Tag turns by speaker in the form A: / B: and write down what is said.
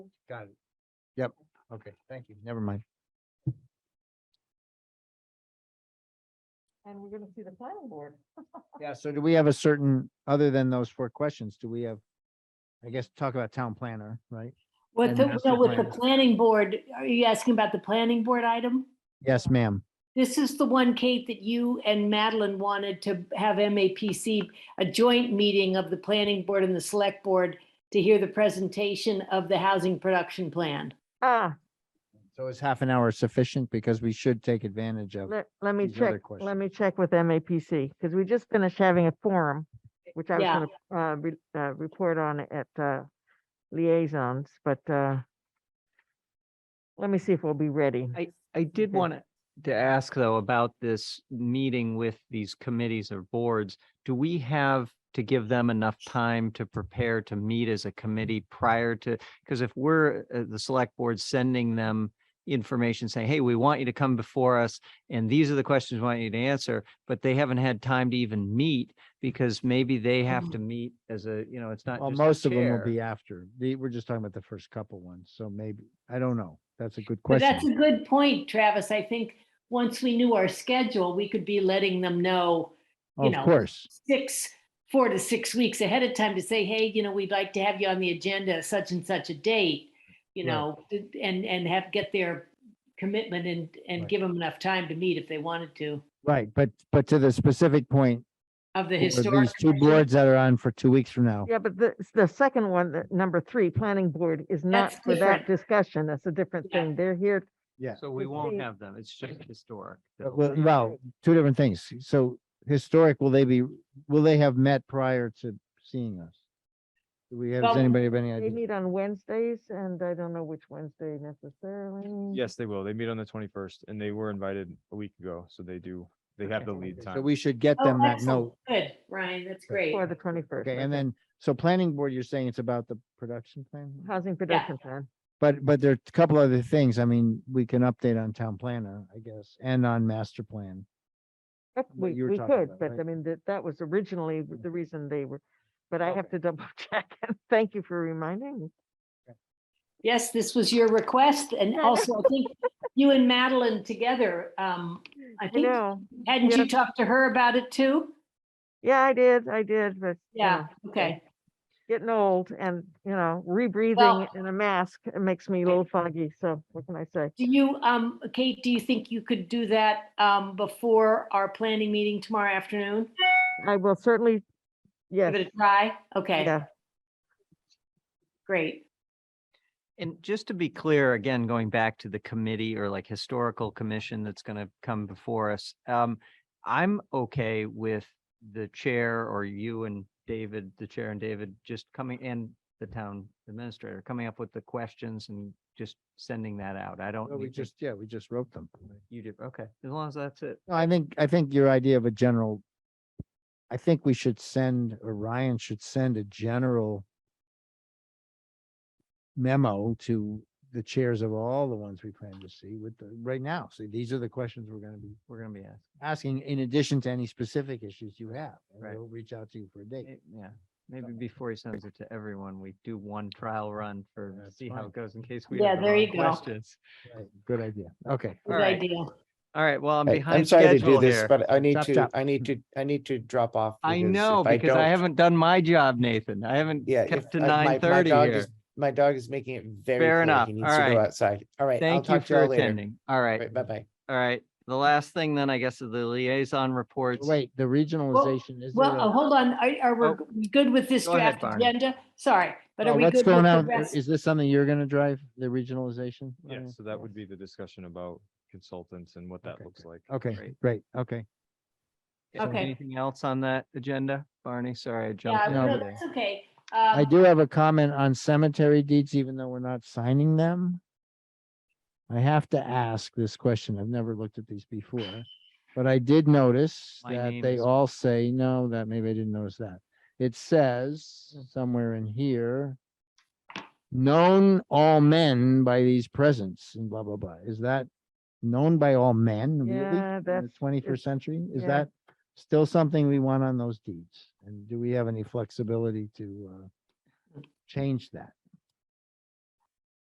A: Got it. Yep, okay, thank you, never mind.
B: And we're gonna see the planning board.
A: Yeah, so do we have a certain, other than those four questions, do we have, I guess, talk about town planner, right?
C: With,
A: And
C: the-
A: master
C: no, with the
A: plan.
C: planning board, are you asking about the planning board item?
A: Yes, ma'am.
C: This is the one, Kate, that you and Madeline wanted to have MAPC, a joint meeting of the planning board and the select board to hear the presentation of the housing production plan.
D: Ah,
A: So is half an hour sufficient because we should take advantage of,
D: let, let me
A: these other
D: check, let
A: questions.
D: me check with MAPC, because we just finished having a forum, which I was
C: Yeah.
D: gonna, uh, re- uh, report on at, uh, liaisons, but, uh, let me see if we'll be ready.
E: I did
D: Okay.
E: want to ask though about this meeting with these committees or boards. Do we have to give them enough time to prepare to meet as a committee prior to? Because if we're, uh, the select board sending them information saying, hey, we want you to come before us and these are the questions we want you to answer, but they haven't had time to even meet because maybe they have to meet as a, you know, it's not
A: Mm-hmm. well,
E: just
A: most
E: the
A: of them will
E: chair.
A: be after. The, we're just talking about the first couple ones, so maybe, I don't know. That's a good
C: But that's
A: question.
C: a good point, Travis. I think once we knew our schedule, we could be letting them know you
A: Of
C: know,
A: course,
C: six, four to six weeks ahead of time to say, hey, you know, we'd like to have you on the agenda such and such a date, you
A: Right.
C: know, and, and have, get their commitment and, and
A: Right.
C: give them enough time to meet if they wanted to,
A: right, but, but to the specific point,
C: of the
A: for
C: historic.
A: these two
C: commission.
A: boards that are on for two weeks from now.
D: Yeah, but the, the second one, the number three, planning board is not
C: That's
D: for that
C: different.
D: discussion. That's a different
C: Yeah.
D: thing. They're here,
A: Yeah.
E: So we
D: Let's
E: won't
D: see.
E: have them. It's just historic.
A: But
E: though.
A: Well, well, two different things. So historic, will they be, will they have met prior to seeing us? Do we have, does
C: Well,
A: anybody have any
D: they
A: idea?
D: meet on Wednesdays, and I don't know which Wednesday necessarily.
F: Yes, they will. They meet on the twenty-first and they were invited a week ago, so they do, they have the lead
A: So
F: time.
A: we should get
C: Oh,
A: them that
C: excellent.
A: note.
C: Good, Ryan, that's great.
D: For the twenty-first.
A: Okay, and then, so planning board, you're saying it's about the production plan?
D: Housing production plan.
A: But, but there are a couple other things. I mean, we can update on town planner, I guess, and on master plan.
D: Yep,
A: what
D: We,
A: you were
D: we
A: talking
D: could,
A: about,
D: but
A: right?
D: I mean, that, that was originally
A: Yeah.
D: the reason they were, but I have to double check. Thank you for reminding me.
C: Yes, this was your request. And also, I think you and Madeline together, um, I
D: I
C: think,
D: know.
C: hadn't you
D: yeah.
C: talked to her about it too?
D: Yeah, I did, I did, but. you
C: Yeah,
D: know,
C: okay.
D: Getting old and, you know,
C: Well-
D: rebreathing in a mask, it makes me a little foggy. So what can I say?
C: Do you, um, Kate, do you think you could do that, um, before our planning meeting tomorrow afternoon?
D: I will certainly,
C: Give
D: yes,
C: it a try? Okay,
D: yeah,
C: great.
E: And just to be clear, again, going back to the committee or like historical commission that's going to come before us, um, I'm okay with the chair or you and David, the chair and David, just coming and the town administrator, coming up with the questions and just sending that out. I don't.
A: Well, we
E: need to-
A: just, yeah, we just wrote them.
E: You did, okay, as long as that's it.
A: No, I think, I think your idea of a general, I think we should send, or Ryan should send a general memo to the chairs of all the ones we plan to see with, the right now. So these are the questions we're gonna be
E: We're going to be asked.
A: asking in addition to any specific issues you have. and
E: Right.
A: We'll reach out to you for a date.
E: May- Yeah, maybe before he sends it to everyone, we do one trial run for,
A: That's
E: see how
A: fine.
E: it goes in case we
C: Yeah,
E: have the
C: there
E: wrong
C: you go.
E: questions.
A: Right, Good idea. Okay.
C: Good
E: All right.
C: idea.
E: All right, well, I'm
G: Hey,
E: behind
G: sorry to do
E: schedule
G: this,
E: here.
G: But I need
A: Chop,
G: to,
A: chop.
G: I need to, I need to drop off.
E: I know,
G: if
E: because I
G: don't-
E: haven't done my job, Nathan. I haven't
G: Yeah. if
E: kept to
G: I- my- my
E: nine thirty
G: dog
E: here.
G: is- My dog is making it very
E: Fair
G: clear
E: enough.
G: He needs
E: All
G: to go
E: right.
G: outside. All right. I'll
E: Thank you
G: talk to you
E: for
G: all later.
E: attending. All right,
G: Right, Bye-bye.
E: all right. The last thing then, I guess, is the liaison reports.
A: Wait, the regionalization is.
C: Well, oh, hold on, are, are
E: Oh.
C: we good with this
E: Go ahead,
C: draft
E: Barney.
C: agenda? Sorry, but are we good
A: oh, What's
C: with
A: going
C: the
A: on?
C: rest?
A: Is this something you're gonna drive, the regionalization?
F: Yeah,
A: Ryan?
F: so that would be the discussion about consultants and what that
A: Okay,
F: looks like.
A: Okay,
E: Great.
A: great. Okay.
E: So
C: Okay.
E: Anything else on that agenda? Barney, sorry, I
C: Yeah,
E: jumped in
C: no,
E: over there.
C: that's okay.
A: I
C: Um,
A: do have a comment on cemetery deeds, even though we're not signing them. I have to ask this question. I've never looked at these before, but I did notice
E: My
A: that
E: name
A: they
E: is-
A: all say, no, that maybe I didn't notice that. It says
E: Hmm.
A: somewhere in here, known all men by these presents and blah, blah, blah. Is that known by all men really
D: yeah,
A: in the
D: that's,
A: twenty-first century? Is
D: yeah.
A: that still something we want on those deeds? And do we have any flexibility to uh, change that?